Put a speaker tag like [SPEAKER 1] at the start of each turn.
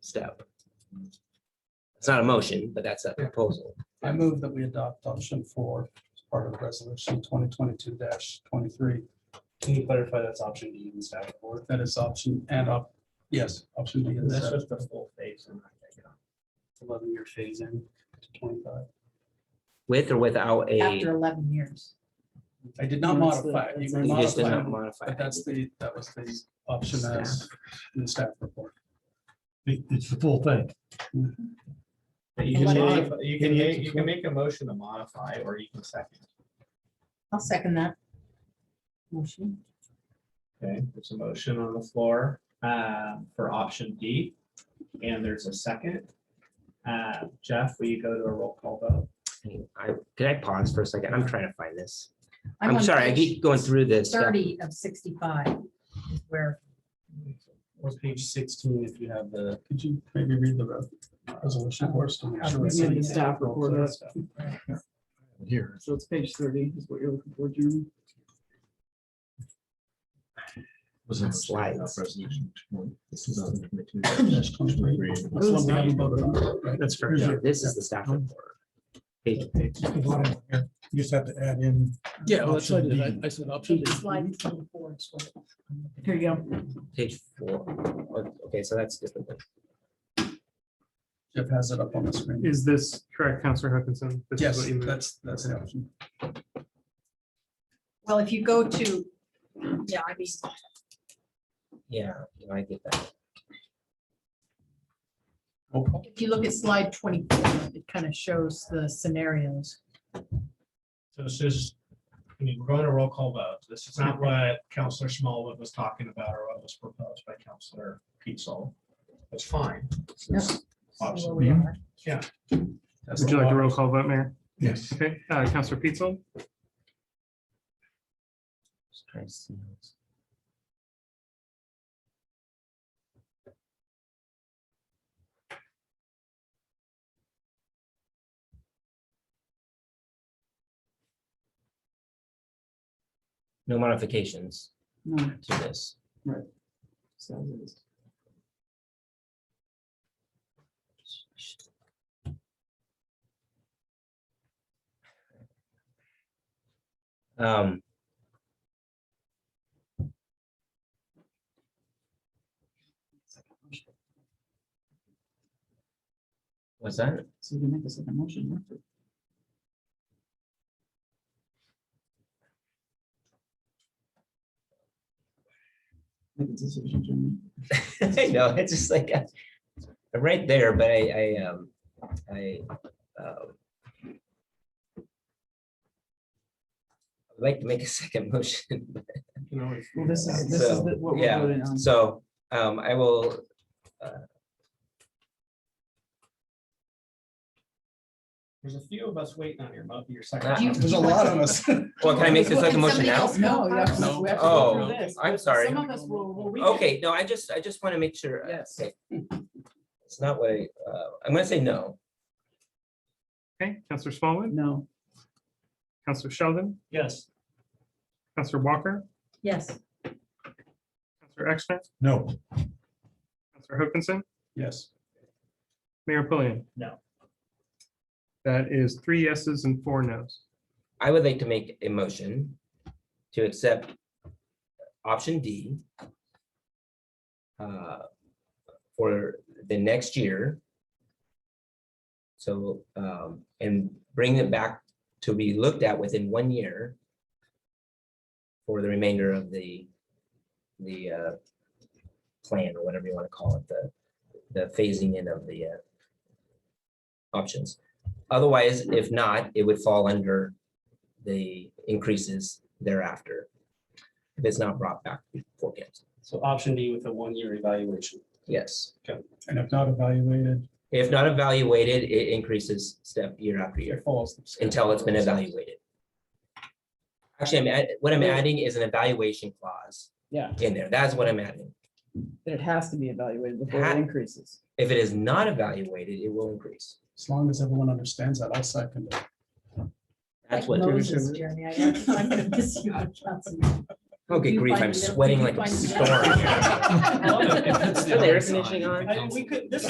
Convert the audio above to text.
[SPEAKER 1] step. It's not a motion, but that's a proposal.
[SPEAKER 2] I move that we adopt option four as part of resolution twenty twenty-two twenty-three.
[SPEAKER 3] Can you clarify that's option D in the staff report?
[SPEAKER 2] That is option and up, yes, option B. is
[SPEAKER 3] That's
[SPEAKER 2] that
[SPEAKER 3] just the full phase. in, I think, uh,
[SPEAKER 2] Eleven year phase in to twenty-five.
[SPEAKER 1] With or without
[SPEAKER 4] after
[SPEAKER 1] a,
[SPEAKER 4] eleven years.
[SPEAKER 2] I did not
[SPEAKER 4] That's the-
[SPEAKER 2] modify. it. You
[SPEAKER 4] that's
[SPEAKER 2] were
[SPEAKER 4] the-
[SPEAKER 1] you just did not
[SPEAKER 2] modifying,
[SPEAKER 1] modify.
[SPEAKER 2] But that's the, that was the option as in the staff report.
[SPEAKER 5] It- It's the full thing.
[SPEAKER 3] But you can
[SPEAKER 4] Eleven.
[SPEAKER 3] modify, you can, make- you can make a motion to modify or you can second.
[SPEAKER 4] I'll second that. Motion.
[SPEAKER 3] Okay, there's a motion on the floor uh, for option D. And there's a second. Uh, Jeff, will you go to a roll call vote?
[SPEAKER 1] I, could I pause for a second? I'm trying to find this.
[SPEAKER 4] on
[SPEAKER 1] I'm sorry, I
[SPEAKER 4] page
[SPEAKER 1] keep going through this. stuff.
[SPEAKER 4] Thirty of sixty-five is where,
[SPEAKER 3] Or page sixteen if you have the.
[SPEAKER 2] Could you maybe read the re- resolution for us to make sure?
[SPEAKER 6] It's in the
[SPEAKER 2] it's-
[SPEAKER 6] staff report, that's-
[SPEAKER 5] Here,
[SPEAKER 6] so it's page thirty is what you're looking for, June.
[SPEAKER 5] was in
[SPEAKER 1] Slides.
[SPEAKER 5] resolution.
[SPEAKER 2] Dash 23. That's the one we haven't voted on, right?
[SPEAKER 5] That's fair.
[SPEAKER 2] Yeah.
[SPEAKER 1] This is the staff report. Page-
[SPEAKER 5] You just have to add in.
[SPEAKER 2] Yeah, well, that's what I did. I-
[SPEAKER 5] Option
[SPEAKER 2] I said option
[SPEAKER 4] page
[SPEAKER 2] D.
[SPEAKER 4] slide to the board. is what-
[SPEAKER 6] Oh, Here you go.
[SPEAKER 1] Page four. Okay, so that's different.
[SPEAKER 2] Jeff has it up on the screen.
[SPEAKER 7] Is this correct, Counselor Hutchinson? This is
[SPEAKER 2] Yes,
[SPEAKER 7] what you meant.
[SPEAKER 2] that's, that's the option.
[SPEAKER 4] Well, if you go to, yeah, I mean,
[SPEAKER 1] Yeah, no, I get that.
[SPEAKER 2] Roll call.
[SPEAKER 4] if you look at slide twenty-four, it kind of shows the scenarios.
[SPEAKER 3] So this is, I mean, we're going to roll call vote. This is not what Counselor Smallwood was talking about or what was proposed by Counselor Pizzol. That's fine. This is-
[SPEAKER 4] So where we
[SPEAKER 6] Mm-hmm.
[SPEAKER 4] are.
[SPEAKER 3] Yeah,
[SPEAKER 2] That's
[SPEAKER 7] Would you
[SPEAKER 2] the
[SPEAKER 7] like a
[SPEAKER 2] law.
[SPEAKER 7] roll call vote, Mayor?
[SPEAKER 5] Yes.
[SPEAKER 7] Okay, uh, Counselor Pizel,
[SPEAKER 1] Just trying to see how it's- No modifications
[SPEAKER 6] No,
[SPEAKER 1] to this.
[SPEAKER 6] so it's-
[SPEAKER 1] Um. What's that?
[SPEAKER 6] so you can make a second motion. yeah. Make a decision, Jimmy.
[SPEAKER 1] I know, it's just like, uh, I'm right there, but I, I, um, I, um. I'd like to make a second motion.
[SPEAKER 3] you can always-
[SPEAKER 6] Well, this is, this is
[SPEAKER 1] So,
[SPEAKER 6] the- what we're
[SPEAKER 1] yeah,
[SPEAKER 6] voting on.
[SPEAKER 1] So, um, I will. uh,
[SPEAKER 3] There's a few of us waiting on your, mo- your
[SPEAKER 1] Do you-
[SPEAKER 3] second.
[SPEAKER 2] There's a lot of us.
[SPEAKER 1] Well, Oh, can I make the
[SPEAKER 4] Well,
[SPEAKER 1] second
[SPEAKER 4] can
[SPEAKER 1] motion
[SPEAKER 4] somebody
[SPEAKER 1] now?
[SPEAKER 4] else
[SPEAKER 6] No,
[SPEAKER 4] No,
[SPEAKER 6] you have to-
[SPEAKER 2] no.
[SPEAKER 6] we have to
[SPEAKER 1] Oh,
[SPEAKER 6] vote on this.
[SPEAKER 1] I'm sorry.
[SPEAKER 6] Some of us will, will read it.
[SPEAKER 1] Okay, no, I just, I just want to make sure. uh,
[SPEAKER 6] Yes.
[SPEAKER 1] okay. It's not what I, uh, I'm gonna say no.
[SPEAKER 7] okay, Counselor Smallwood,
[SPEAKER 6] No.
[SPEAKER 7] Counselor Sheldon,
[SPEAKER 3] Yes.
[SPEAKER 7] Counselor Walker,
[SPEAKER 4] Yes.
[SPEAKER 7] Counselor Exner,
[SPEAKER 5] No.
[SPEAKER 7] Counselor Hutchinson,
[SPEAKER 2] Yes.
[SPEAKER 7] Mayor Pulliam.
[SPEAKER 3] No.
[SPEAKER 7] That is three yeses and four nos.
[SPEAKER 1] I would like to make a motion to accept option D uh, for the next year. So, um, and bring it back to be looked at within one year for the remainder of the, the uh, plan, or whatever you want to call it, the, the phasing in of the uh, options. Otherwise, if not, it would fall under the increases thereafter. If it's not brought back before council,
[SPEAKER 3] So option D with a one-year evaluation.
[SPEAKER 1] yes.
[SPEAKER 2] And if not evaluated,
[SPEAKER 1] If not evaluated, it increases step year after
[SPEAKER 2] it
[SPEAKER 1] year
[SPEAKER 2] falls.
[SPEAKER 1] until it's been evaluated. Actually, I'm, add- what I'm adding is an evaluation clause
[SPEAKER 6] Yeah,
[SPEAKER 1] in there. That's what I'm adding.
[SPEAKER 6] that it has to be evaluated before
[SPEAKER 1] Ha-
[SPEAKER 6] it increases.
[SPEAKER 1] If it is not evaluated, it will increase.
[SPEAKER 2] As long as everyone understands that, I'll second it.
[SPEAKER 1] That's
[SPEAKER 4] Like
[SPEAKER 1] what,
[SPEAKER 4] Moses, Jeremy, I know. I'm gonna miss you on Johnson.
[SPEAKER 1] okay,
[SPEAKER 4] You
[SPEAKER 1] grief,
[SPEAKER 4] find
[SPEAKER 1] I'm
[SPEAKER 4] it-
[SPEAKER 1] sweating
[SPEAKER 4] you
[SPEAKER 1] like a
[SPEAKER 4] find it-
[SPEAKER 1] storm. Is the air conditioning on?
[SPEAKER 3] I- We could, this